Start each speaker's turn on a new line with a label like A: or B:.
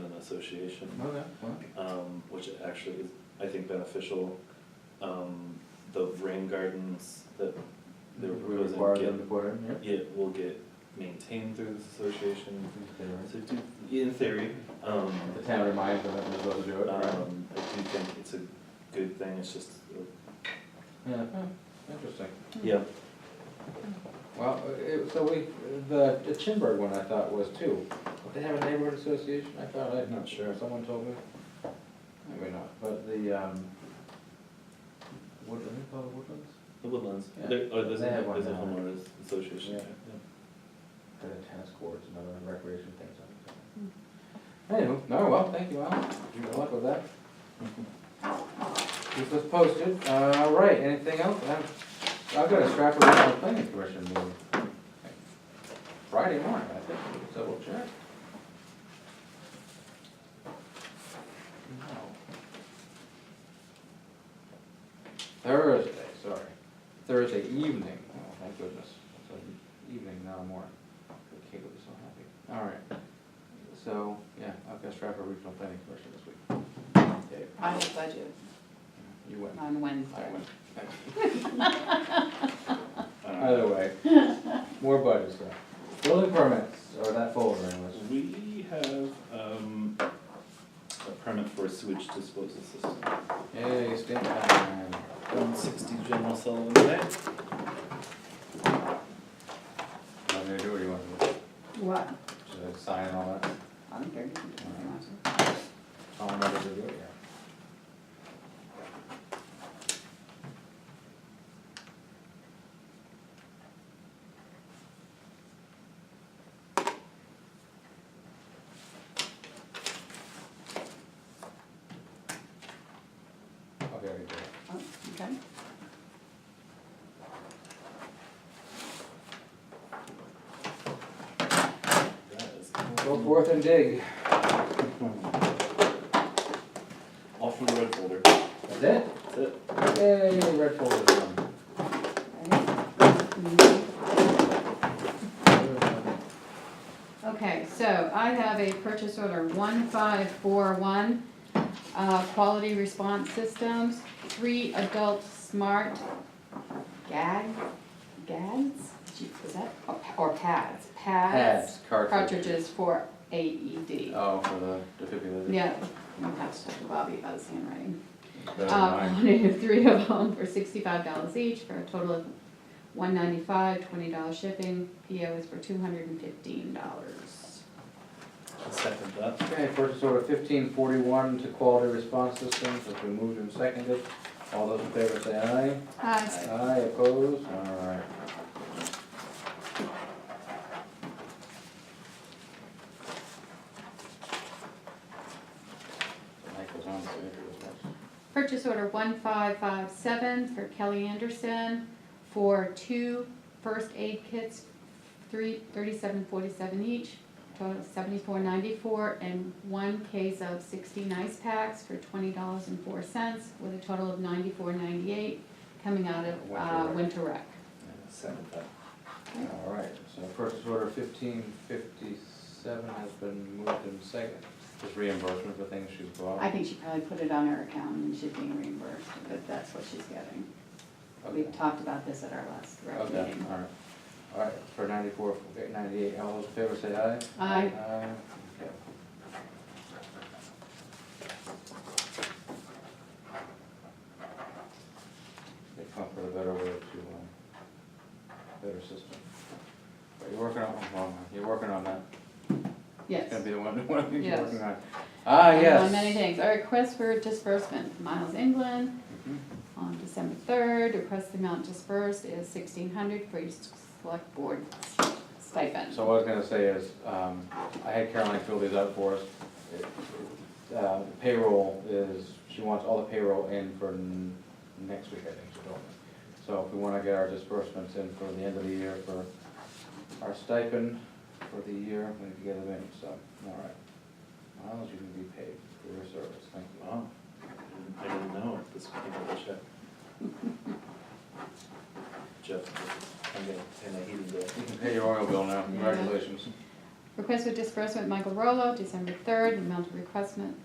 A: Association,
B: Okay, well,
A: um, which actually is, I think, beneficial. Um, the rain gardens that they were
B: we
A: proposing
B: Mm-hmm. require them to
A: get,
B: put in, yeah.
A: yeah, will get maintained through this association.
B: They were.
A: So do, in theory, um,
B: The town reminds them that they're supposed to do it, right?
A: um, I do think it's a good thing, it's just, uh,
B: Yeah, interesting.
A: yeah,
B: Well, uh, it, so we, the, the Chinburg one I thought was too. Don't they have a neighborhood association? I thought, I'm not sure, someone told me. Maybe not, but the, um, what, are they called woodlands?
A: the woodlands,
B: Yeah.
A: there, oh, there's a,
B: They have one
A: there's a
B: now.
A: homeowners association
B: Yeah.
A: there, yeah.
B: Got a tennis courts and other recreation things on it. Anyway, no, well, thank you, Alan. Good luck with that. Keep us posted. Uh, All right, anything else? I'm- I've got a Stratford Regional Planning Commission meeting. Friday morning, I think. Let's Double check. No. Thursday, sorry. Thursday evening. Oh, thank goodness. It's an evening, not a morning. The kid will be so happy. All right. So, yeah, I've got Stratford Regional Planning Commission this week. Dave,
C: I have budget
B: you win.
C: on Wednesday.
B: I win. Either way, more budget stuff. Building permits, or that folder anyways.
A: Uh, We have, um, a permit for a sewage disposal system.
B: Yay, stamp time.
A: One sixty General Sullivan Way.
B: Want me to do what you want to do?
C: What?
B: Should I sign and all that?
C: I'm very good.
B: I'll remember to do it, yeah. Okay, I can do it.
C: Oh, okay.
A: That is
B: Go forth and dig.
A: All from the red folder.
B: That's it?
A: That's it.
B: Yay, red folder's done.
C: Ready? Okay, so I have a purchase order one five four one, uh, Quality Response Systems, three adult smart gag, gads? Gee, Is that, or pa- or pads, pads?
B: Pads, cartridges.
C: Cartridges for AED.
B: Oh, for the defibrillator.
C: Yeah, I'll pass that to Bobby about his handwriting.
B: Better than
C: Uh,
B: mine.
C: quantity of three of them for sixty-five dollars each, for a total of one ninety-five, twenty dollar shipping, PO is for two hundred and fifteen dollars.
A: I'll second that.
B: Okay, purchase order fifteen forty-one to Quality Response Systems, has been moved and seconded. All those in favor say aye.
C: Hi.
B: Aye, opposed, alright. Michael's on, so if it was-
C: Purchase order one five five seven for Kelly Anderson for two first aid kits, three, thirty-seven forty-seven each, total of seventy-four ninety-four, and one case of sixteen ice packs for twenty dollars and four cents, with a total of ninety-four ninety-eight, coming out of, uh,
B: Winter rec.
C: Winter Rec.
A: Second that.
B: All right, so purchase order fifteen fifty-seven has been moved and seconded. Just reimbursement for things she's bought.
C: I think she probably put it on her account and she's being reimbursed, but that's what she's getting.
B: Okay.
C: We talked about this at our last rec
B: Okay,
C: meeting.
B: all right. All right, for ninety-four, okay, ninety-eight, all those in favor say aye.
C: Aye.
B: Aye, okay. They come for a better way to, um, better system. But you're working on, well, you're working on that. It's gonna
C: Yes.
B: be the one, one thing you're
C: Yes.
B: working on. Ah,
C: And
B: yes.
C: On many things, our request for disbursement, Miles England,
B: Mhm.
C: on December third, request the amount dispersed is sixteen hundred for your s- select board stipend.
B: So what I was gonna say is, um, I had Caroline fill these out for us. It- it, uh, Payroll is, she wants all the payroll in for n- next week, I think she told me. So if we wanna get our disbursements in for the end of the year for our stipend for the year, we need to get them in, so, all right. Miles, you can be paid for your service, thank you.
A: Wow. I didn't- I didn't know this was gonna be a check. Jeff, I'm gonna, and I heated that.
B: You can pay your oil bill now, congratulations.
C: Request for disbursement, Michael Rolo, December third, amount of requestment,